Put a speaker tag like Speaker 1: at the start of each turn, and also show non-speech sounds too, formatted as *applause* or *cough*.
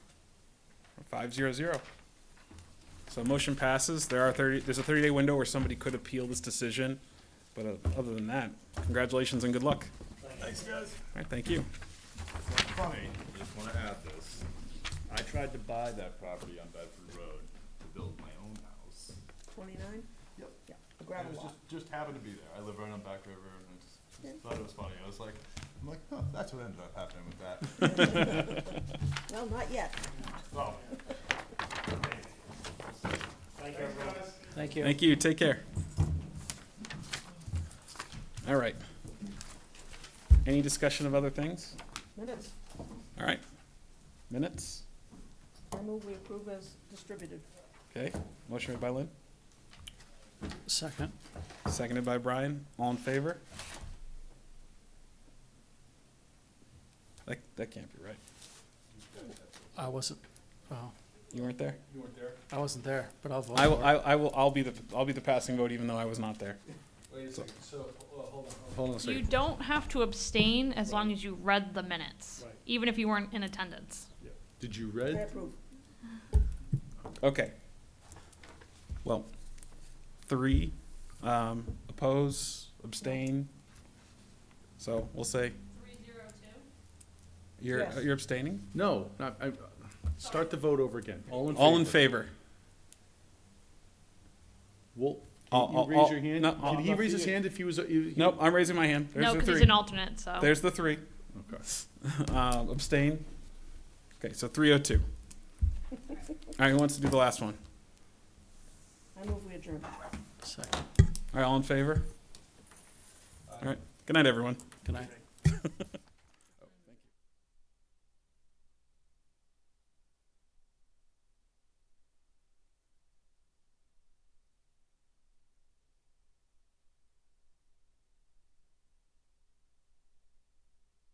Speaker 1: Five zero zero. So motion passes. There are thirty, there's a thirty day window where somebody could appeal this decision. But uh, other than that, congratulations and good luck.
Speaker 2: Thanks, guys.
Speaker 1: All right, thank you.
Speaker 2: It's funny, I just wanna add this. I tried to buy that property on Bedford Road to build my own house.
Speaker 3: Twenty-nine?
Speaker 2: Yep.
Speaker 3: Yeah, a
Speaker 2: It
Speaker 3: gravel
Speaker 2: was
Speaker 3: lot.
Speaker 2: just, just happened to be there. I live right on Back River and I just-
Speaker 3: Yeah.
Speaker 2: just thought it was funny. I was like, I'm like, huh, that's what ended up happening with
Speaker 4: *laughs*
Speaker 2: that.
Speaker 3: Well, not yet.
Speaker 2: Oh,
Speaker 5: Thank you.
Speaker 1: Thank you. Take care. All right. Any discussion of other things?
Speaker 3: Minutes,
Speaker 1: All right. Minutes?
Speaker 3: I move we approve as distributed.
Speaker 1: Okay. Motion made by Lynn,
Speaker 5: Second.
Speaker 1: seconded by Brian. All in favor? That, that can't be right.
Speaker 5: I wasn't, well,
Speaker 1: You weren't there?
Speaker 5: I wasn't there, but I'll vote
Speaker 1: I will,
Speaker 5: for it.
Speaker 1: I, I will, I'll be the, I'll be the passing vote even though I was not there. So-
Speaker 4: uh,
Speaker 1: Hold on a
Speaker 6: You
Speaker 1: second.
Speaker 6: don't have to abstain as long as you read the minutes, even if you weren't in attendance.
Speaker 2: Did you
Speaker 3: I
Speaker 2: read?
Speaker 3: approve.
Speaker 1: Okay. Well, three, um, oppose, abstain. So we'll say
Speaker 6: Three zero two?
Speaker 1: you're,
Speaker 3: Yes.
Speaker 1: you're abstaining?
Speaker 4: No, not, I, start the vote over again. All in favor?
Speaker 1: All in favor?
Speaker 4: Wolf,
Speaker 1: All-
Speaker 4: can you
Speaker 1: all-
Speaker 4: raise your
Speaker 1: all-
Speaker 4: hand?
Speaker 1: no, all-
Speaker 4: Did
Speaker 2: Uh,
Speaker 4: he raise his hand if he was?
Speaker 1: Nope, I'm raising my hand. There's
Speaker 6: No,
Speaker 1: the
Speaker 6: because he's
Speaker 1: three.
Speaker 6: an alternate, so.
Speaker 1: There's the three.
Speaker 4: Okay.
Speaker 1: Um, abstain. Okay, so three oh two.
Speaker 6: *laughs*
Speaker 1: All right, who wants to do the last one?
Speaker 3: I move we adjourn.
Speaker 5: Second.
Speaker 1: All right, all in favor? All right, good night, everyone.
Speaker 5: Good night.